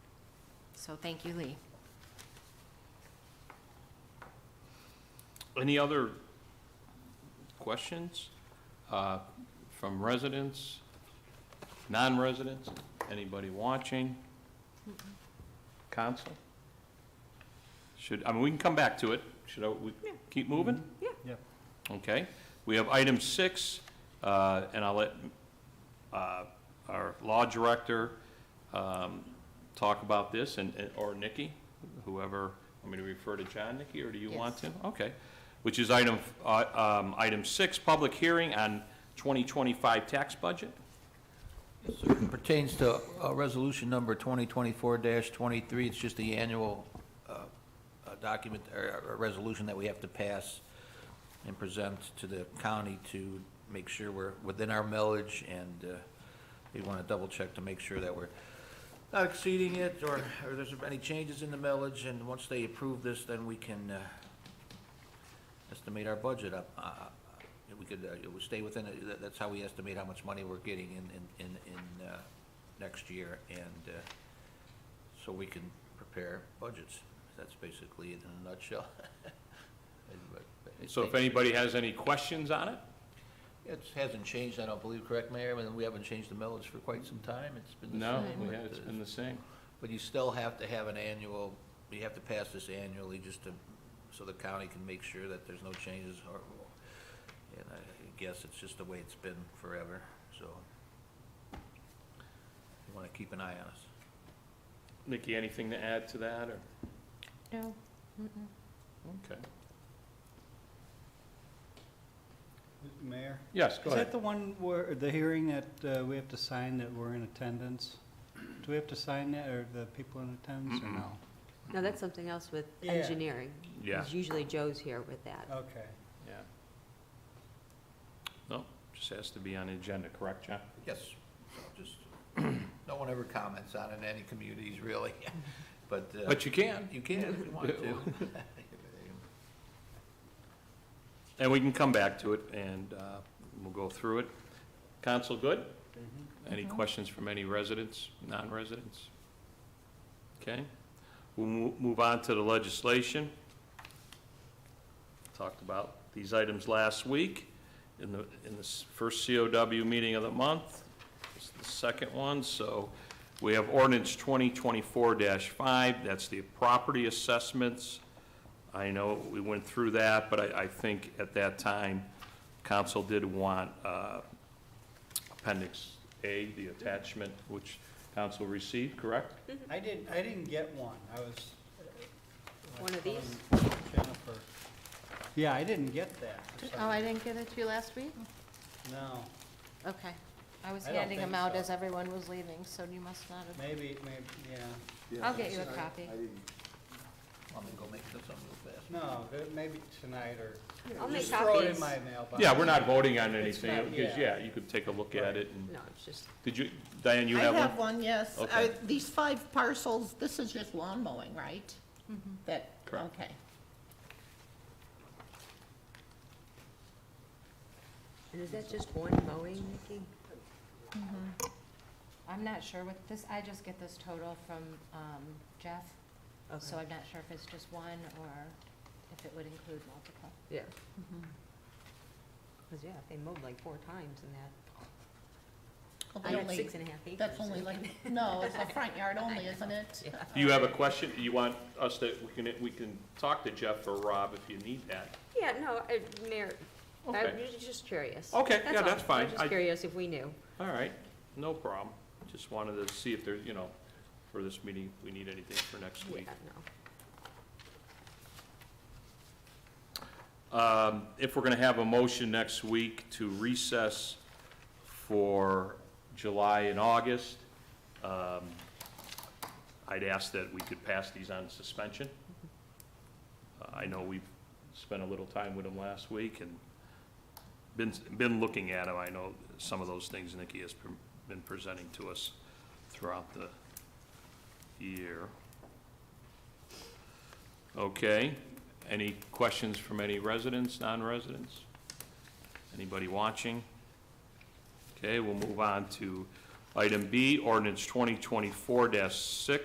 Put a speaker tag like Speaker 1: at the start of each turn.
Speaker 1: So thank you, Lee.
Speaker 2: Any other questions uh, from residents, non-residents, anybody watching? Council? Should, I mean, we can come back to it. Should I, we keep moving?
Speaker 1: Yeah.
Speaker 3: Yep.
Speaker 2: Okay. We have item six, uh, and I'll let uh, our law director um, talk about this, and, and- or Nikki, whoever, I mean, refer to John, Nikki, or do you want to? Okay. Which is item, uh, um, item six, public hearing on 2025 tax budget.
Speaker 3: Pertains to uh, Resolution Number 2024-23, it's just the annual uh, uh, document, or or resolution that we have to pass and present to the county to make sure we're within our millage, and uh, we want to double-check to make sure that we're not exceeding it, or or there's any changes in the millage, and once they approve this, then we can uh, estimate our budget up. uh, uh, We could, uh, it would stay within, it. That- that's how we estimate how much money we're getting in, in, in, in uh, next year, and uh, so we can prepare budgets. That's basically it in a nutshell.
Speaker 2: So if anybody has any questions on it,
Speaker 3: It hasn't changed, I don't believe, correct, Mayor? I mean, we haven't changed the millage for quite some time. It's been the
Speaker 2: no,
Speaker 3: same.
Speaker 2: we
Speaker 3: but,
Speaker 2: have- it's
Speaker 3: uh,
Speaker 2: been the same.
Speaker 3: But you still have to have an annual, you have to pass this annually just to, so the county can make sure that there's no changes or, and I guess it's just the way it's been forever, so. You wanna keep an eye on us.
Speaker 2: Nikki, anything to add to that, or?
Speaker 1: No.
Speaker 2: Okay.
Speaker 4: Mayor?
Speaker 2: Yes, go
Speaker 4: Is that
Speaker 2: ahead.
Speaker 4: the one where, the hearing that uh, we have to sign that we're in attendance? Do we have to sign that, or the people in attendance, or no?
Speaker 5: No, that's something else with
Speaker 4: Yeah.
Speaker 5: engineering.
Speaker 2: Yeah,
Speaker 5: 'cause Usually Joe's here with that.
Speaker 4: Okay.
Speaker 2: yeah. No, just has to be on the agenda, correct, John?
Speaker 3: Yes, so just, no one ever comments on it in any communities, really, but. uh,
Speaker 2: But you can.
Speaker 3: You can if you want to.
Speaker 2: And we can come back to it, and uh, we'll go through it. Council, good?
Speaker 5: Mm-hmm.
Speaker 2: Any questions from any residents, non-residents? Okay, we'll mo- move on to the legislation. Talked about these items last week in the, in the s- first COW meeting of the month. It's the second one, so we have ordinance 2024-5, that's the property assessments. I know we went through that, but I, I think at that time, council did want uh, Appendix A, the attachment, which council received, correct?
Speaker 4: I didn't, I didn't get one, I was. uh,
Speaker 5: One of
Speaker 4: calling
Speaker 5: these?
Speaker 4: Jennifer. Yeah, I didn't get that. for some
Speaker 1: Oh, I
Speaker 4: reason.
Speaker 1: didn't get it to you last week?
Speaker 4: No,
Speaker 1: Okay. I was
Speaker 4: I don't
Speaker 1: handing them
Speaker 4: think
Speaker 1: out
Speaker 4: so.
Speaker 1: as everyone was leaving, so you must not have.
Speaker 4: maybe, maybe, yeah.
Speaker 1: I'll get you a copy.
Speaker 3: Want me to go make this up real fast?
Speaker 4: No, but maybe tonight or.
Speaker 5: I'll make
Speaker 4: Just throw it in
Speaker 5: copies.
Speaker 4: my mailbox.
Speaker 2: Yeah, we're not voting on
Speaker 4: It's
Speaker 2: anything,
Speaker 4: not-
Speaker 2: because,
Speaker 4: yeah.
Speaker 2: yeah, you could take a look at it, and,
Speaker 5: No, it's just,
Speaker 2: did you, Diane, you have
Speaker 6: I
Speaker 2: one?
Speaker 6: have one, yes. Uh,
Speaker 2: Okay.
Speaker 6: These five parcels, this is just lawn mowing, right?
Speaker 5: Mm-hmm.
Speaker 6: That,
Speaker 2: Correct.
Speaker 6: okay.
Speaker 5: and is that just one mowing, Nikki? Mm-hmm.
Speaker 1: I'm not sure what this, I just get this total from um, Jeff, so
Speaker 5: Okay,
Speaker 1: I'm not sure if it's just one or if it would include multiple.
Speaker 5: yeah. Because, yeah, they mowed like four times in that,
Speaker 6: Well,
Speaker 5: I
Speaker 6: they
Speaker 5: got
Speaker 6: only-
Speaker 5: six and a half acres.
Speaker 6: That's only
Speaker 5: so-
Speaker 6: like, no, it's a front yard only, isn't it?
Speaker 5: Yeah.
Speaker 2: Do you have a question, you want us to, we can, we can talk to Jeff or Rob if you need that.
Speaker 5: Yeah, no, I- Mayor, I
Speaker 2: Okay,
Speaker 5: was just curious.
Speaker 2: Okay, yeah,
Speaker 5: all.
Speaker 2: that's fine.
Speaker 5: I'm
Speaker 2: I-
Speaker 5: just curious if we knew.
Speaker 2: all right, no problem, just wanted to see if there, you know, for this meeting, if we need anything for next week.
Speaker 5: Yeah, no.
Speaker 2: Um, If we're going to have a motion next week to recess for July and August, um, I'd ask that we could pass these on suspension. Uh, I know we've spent a little time with them last week and been, been looking at them. I know some of those things Nikki has pre- been presenting to us throughout the year. Okay. Any questions from any residents, non-residents? Anybody watching? Okay, we'll move on to item B, ordinance 2024-6,